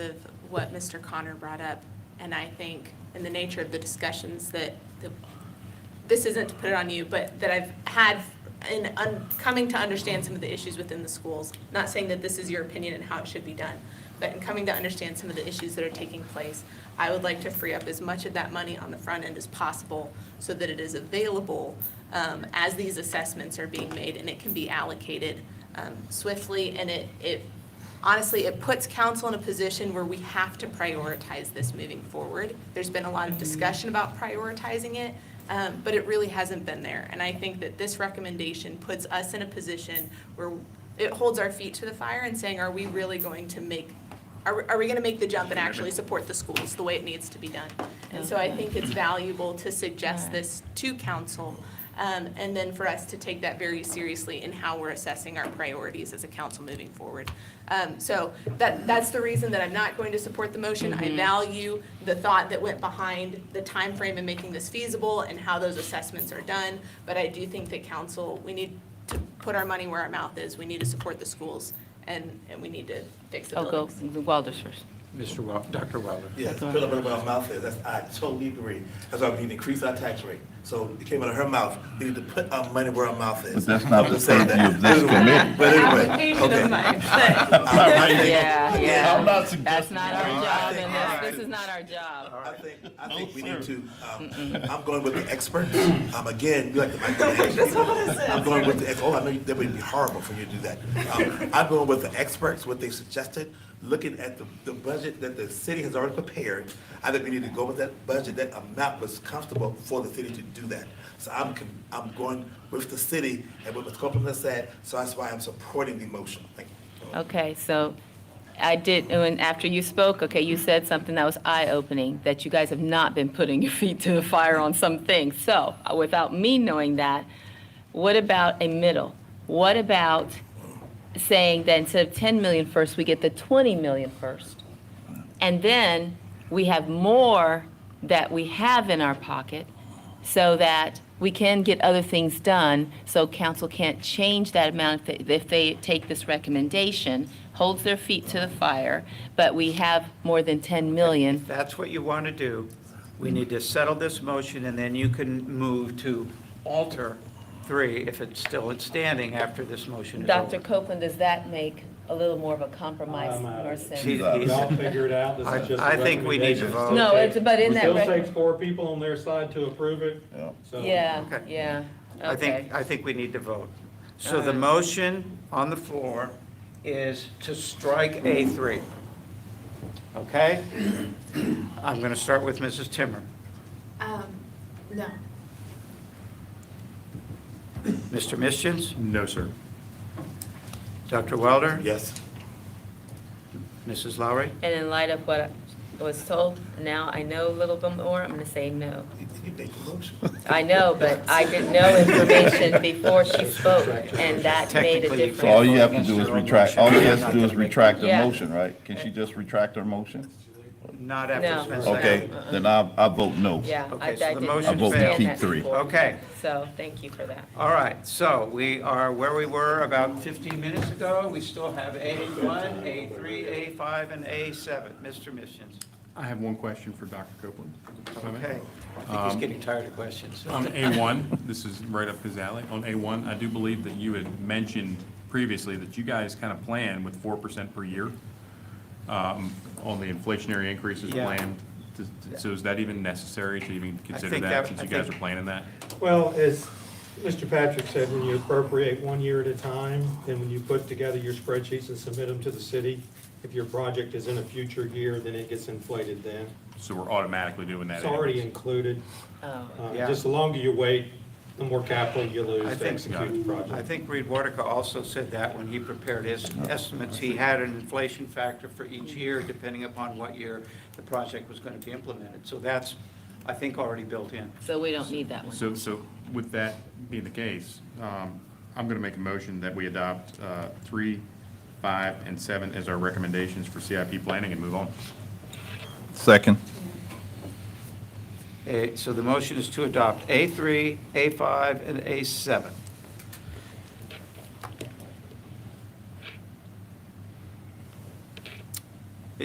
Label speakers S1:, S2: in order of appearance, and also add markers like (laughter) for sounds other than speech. S1: of what Mr. Connor brought up, and I think in the nature of the discussions that, that- this isn't to put it on you, but that I've had in un- coming to understand some of the issues within the schools, not saying that this is your opinion and how it should be done, but in coming to understand some of the issues that are taking place, I would like to free up as much of that money on the front end as possible so that it is available um, as these assessments are being made and it can be allocated um, swiftly and it, it honestly, it puts council in a position where we have to prioritize this moving forward. There's been a lot of discussion about prioritizing it, um, but it really hasn't been there. And I think that this recommendation puts us in a position where it holds our feet to the fire and saying, are we really going to make, are, are we gonna make the jump and actually support the schools the way it needs to be done? And so I think it's valuable to suggest this to council, um, and then for us to take that very seriously in how we're assessing our priorities as a council moving forward. Um, so that, that's the reason that I'm not going to support the motion. I value the thought that went behind the time frame in making this feasible and how those assessments are done. But I do think that council, we need to put our money where our mouth is. We need to support the schools and, and we need to fix the
S2: Oh, go,
S1: buildings.
S2: the Walders first.
S3: Mr. Wel, Dr. Weller.
S4: Yes, Philip put my mouth there. That's, I totally agree. That's why we need to increase our tax rate. So it came out of her mouth. We need to put our money where our mouth is.
S5: But that's not
S4: I'm just saying
S5: the
S4: that.
S5: purview of this
S4: Anyway,
S5: committee.
S4: But anyway,
S1: Application
S4: okay.
S1: of
S4: (laughs)
S1: mine, but-
S4: I- I think-
S2: Yeah, yeah.
S5: I'm not
S2: That's
S5: suggesting.
S2: not our
S4: All right.
S2: job, and that's-
S4: All
S2: this is
S4: right.
S2: not our job.
S4: I think, I think we need to, um, I'm going with the expert. Um, again, you like the micromanage. I'm going with the, ex- oh, I know you- that would be horrible for you to do that. Um, I'm going with the experts, what they suggested, looking at the, the budget that the city has already prepared. I think we need to go with that budget, that amount was comfortable for the city to do that. So I'm, con- I'm going with the city and what Ms. Copeland has said, so that's why I'm supporting the motion. Thank you.
S2: Okay, so I did, and after you spoke, okay, you said something that was eye-opening, that you guys have not been putting your (laughs) feet to the fire on some things. So, uh, without me knowing that, what about a middle? What about saying that instead of 10 million first, we get the 20 million first? And then we have more that we have in our pocket so that we can get other things done, so council can't change that amount if they- if they take this recommendation, holds their feet to the fire, but we have more than 10 million.
S6: If that's what you want to do, we need to settle this motion, and then you can move to alter three if it's still standing after this motion is over.
S2: Dr. Copeland, does that make a little more of a compromise
S7: I'm out.
S2: or
S6: She-
S2: sense?
S6: he's-
S7: Y'all figure it out, this
S6: I-
S7: is just a
S6: I think we need to
S7: recommendation.
S6: vote.
S2: No, Oh, it's, but in
S7: It
S2: that,
S7: Still
S2: rec-
S7: takes four people on their side to approve it, so.
S2: yeah,
S6: Okay.
S2: yeah,
S6: I
S2: okay.
S6: think, I think we need to vote. So the
S2: Alright.
S6: motion on the floor is to strike A3. Okay? I'm going to start with Mrs. Timmer.
S1: Um, no.
S6: Mr. Mischins,
S3: No, sir.
S6: Dr. Welder?
S4: Yes?
S6: Mrs. Lowry?
S2: And in light of what I was told, now I know a little bit more, I'm gonna say no.
S4: You- You make the motion.
S2: I know, but I didn't know information before she spoke, and that made a
S6: Technically, you
S2: difference.
S5: So all you have to do is retract, all she has to do is retract her
S2: Yeah.
S5: motion, right? Can she just retract her motion?
S6: Not after
S2: No.
S6: Spencer.
S5: Okay, then I, I vote no.
S2: Yeah, I, I
S6: Okay, so the
S2: didn't
S6: motion
S5: I vote to
S2: understand
S5: keep
S2: that
S5: three.
S2: before.
S6: Okay.
S2: So, thank you for that.
S6: All right, so we are where we were about 15 minutes ago. We still have A1, A3, A5, and A7. Mr. Missions.
S3: I have one question for Dr. Copeland. if I may.
S6: Okay. I think he's getting tired of questions.
S3: On A1, this is right up his alley. On A1, I do believe that you had mentioned previously that you guys kind of plan with 4% per year um, on the inflationary increases
S6: Yeah.
S3: planned. Does- So is that even necessary to even consider
S6: think
S3: that,
S6: that-
S3: since
S6: I
S3: you guys are
S6: think-
S3: planning that?
S7: Well, as Mr. Patrick said, when you appropriate one year at a time, then when you put together your spreadsheets and submit them to the city, if your project is in a future year, then it gets inflated then.
S3: So we're automatically doing that
S7: It's already
S3: anyways?
S7: included.
S2: Oh,
S7: Uh,
S6: Yeah.
S7: Just the longer you wait, the more capital you
S6: I
S7: lose to
S6: think-
S7: execute the project.
S6: I think Reed Wartica also said that when he prepared his estimates. He had an inflation factor for each year, depending upon what year the project was going to be implemented. So that's, I think, already built in.
S2: so we don't need that one.
S3: So, so with that being the case, um, I'm going to make a motion that we adopt uh, three, five, and seven as our recommendations for CIP planning and move on.
S5: Second.
S6: Eh, So the motion is to adopt A3, A5, and A7.